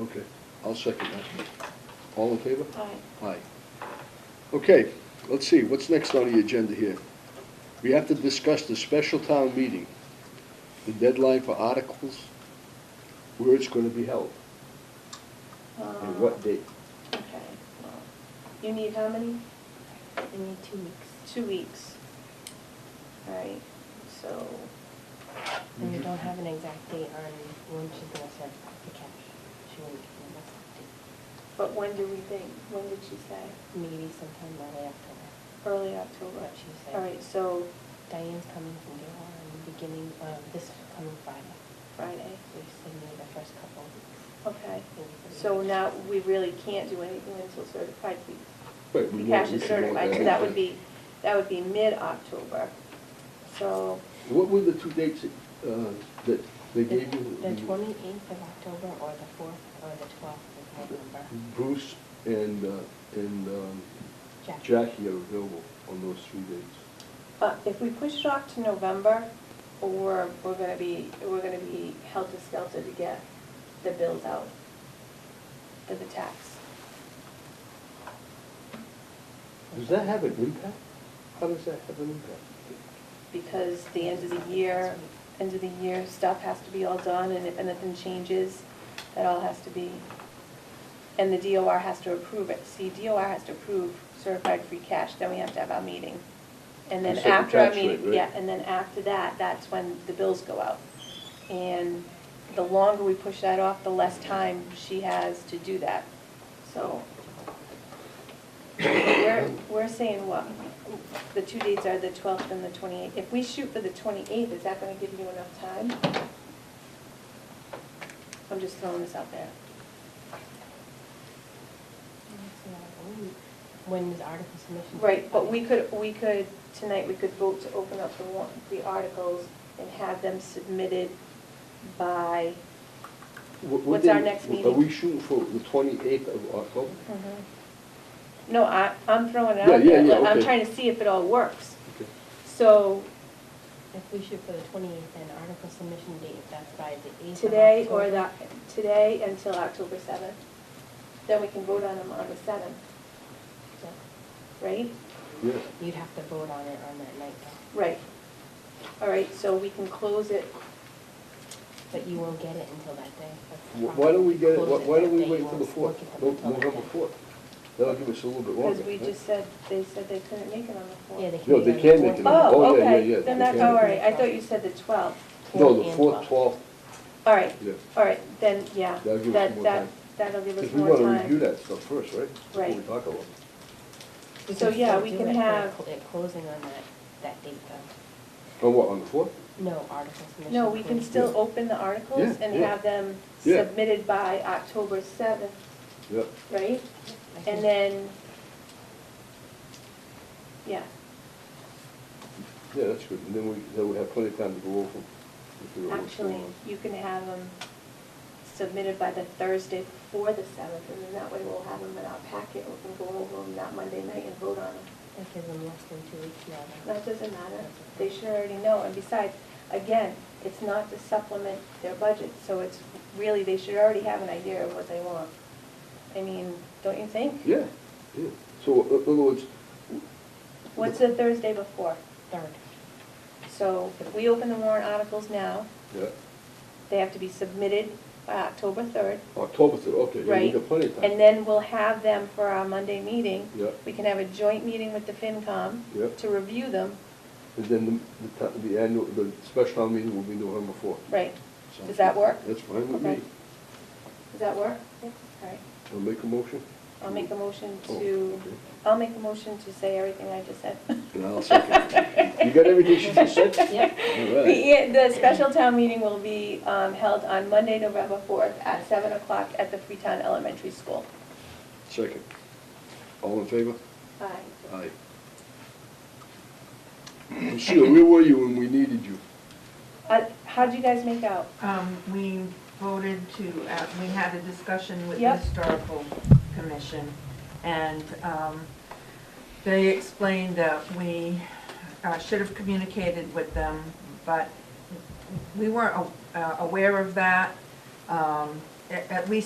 Okay, I'll second that. All in favor? All right. Aye. Okay, let's see, what's next on the agenda here? We have to discuss the special town meeting, the deadline for articles, where it's gonna be held, and what date. um, Okay, well, you need how many? I need two weeks. Two weeks. All right, so, And you don't have an exact date on when she's gonna start the cash. She wouldn't give me an exact date. but when do we think? When did she say? Maybe sometime early October. Early October. What she said. All right, so Diane's coming from Gilmore in the beginning, uh, this coming Friday. Friday, So she said maybe the first couple of weeks. okay. maybe the So week. now, we really can't do anything until certified fees. Right, The we know- cash we is should know certified, so that would be, that would be mid-October. So, What were the two dates that, uh, that they The- gave you? The twenty-eighth of October or the fourth or the twelfth of Mm-hmm. November. Bruce and, uh, and um, Jack. Jackie are available on those three dates. uh, if we push it off to November, or we're gonna be, we're gonna be helter-skelter to get the bills out for the tax. Does that have an impact? How does that have an impact? Because the end of the year, end of the year stuff has to be all done, and if anything changes, that all has to be, and the DOR has to approve it. See, DOR has to approve certified free cash, then we have to have our meeting. And then And set the after our tax rate, meeting, right? yeah, and then after that, that's when the bills go out. And the longer we push that off, the less time she has to do that, so. We're, we're saying what, the two dates are the twelfth and the twenty-eighth. If we shoot for the twenty-eighth, is that gonna give you enough time? I'm just throwing this out there. That's another week. When is article submission? Right, but we could, we could, tonight, we could vote to open up the warrant, the articles and have them submitted by, Wh- what What's our day- next Are meeting? we shooting for the twenty-eighth of October? Mm-hmm. no, I, I'm throwing it Yeah, out yeah, there. yeah, I'm okay. trying to see if it all works. Okay. So If we shoot for the twenty-eighth, then article submission date, if that's by the eighth of today or October. the, today until October seventh. Then we can vote on them on the seventh, So right? Yeah, You'd have to vote on it on that night, though. Right. All right, so we can close it, but you won't get it until that day. That's the Wh- why problem. don't we get it, Close wh- why that don't we day, you wait till won't the look fourth, at them No- until that November day. fourth? That'll give us a little bit longer. because we right? just said, they said they couldn't make it on the fourth. Yeah, they No, can. they can make it Oh, on- Oh, yeah, yeah, okay, yeah, then they that's can. all right, I thought you said the twelfth. No, the and fourth, twelfth, All right, yeah, all right, then, yeah, That'll give us that, more that, time. that'll give us because we more wanna review time. that stuff first, right? Before we Right. talk about it. We So, yeah, still we do can it for have- cl- It closing on that, that date, though. On what, on the fourth? No article submission. No, we can closing. still Yeah. open the articles Yeah, and yeah. have them Yeah. submitted by October seventh, Yep, right? I think- And then, yeah, yeah, that's good, and then we, then we have plenty of time to go over them. if there are what's going actually, on. you can have them submitted by the Thursday before the seventh, and then that way we'll have them in our packet, we can go over them that Monday night and vote on them. That gives them less than two weeks, yeah. then. That doesn't matter, they should already know, and besides, again, it's not to supplement their budget, so it's really, they should already have an idea of what they want. I mean, don't you think? Yeah, yeah, so, uh, in other words, What's the Thursday before? Third. So if we open the warrant articles now, yeah, they have to be submitted by October third, October third, okay, yeah, we right? got plenty of time. And then we'll have them for our Monday meeting. Yeah. We can have a joint meeting with the FinCom Yeah. to review them, And then the, the, the annual, the special town meeting will be November fourth. right? Does that work? That's fine with me. Okay. Does that work? Yeah. All right. I'll make a motion. I'll make a motion Oh, to, okay. I'll make a motion to say everything I just said. And I'll second. You got everything she just said? Yep. All The, right. e- the special town meeting will be um, held on Monday, November 4th at 7 o'clock at the Freetown Elementary School. Second. All in favor? Aye. Aye. Lucille, where were you when we needed you? Uh, How'd you guys make out? Um, we voted to, uh, we had a discussion with the Yep. historical commission, and, um, they explained that we, uh, should have communicated with them, but we weren't a- uh, aware of that, um, a- at least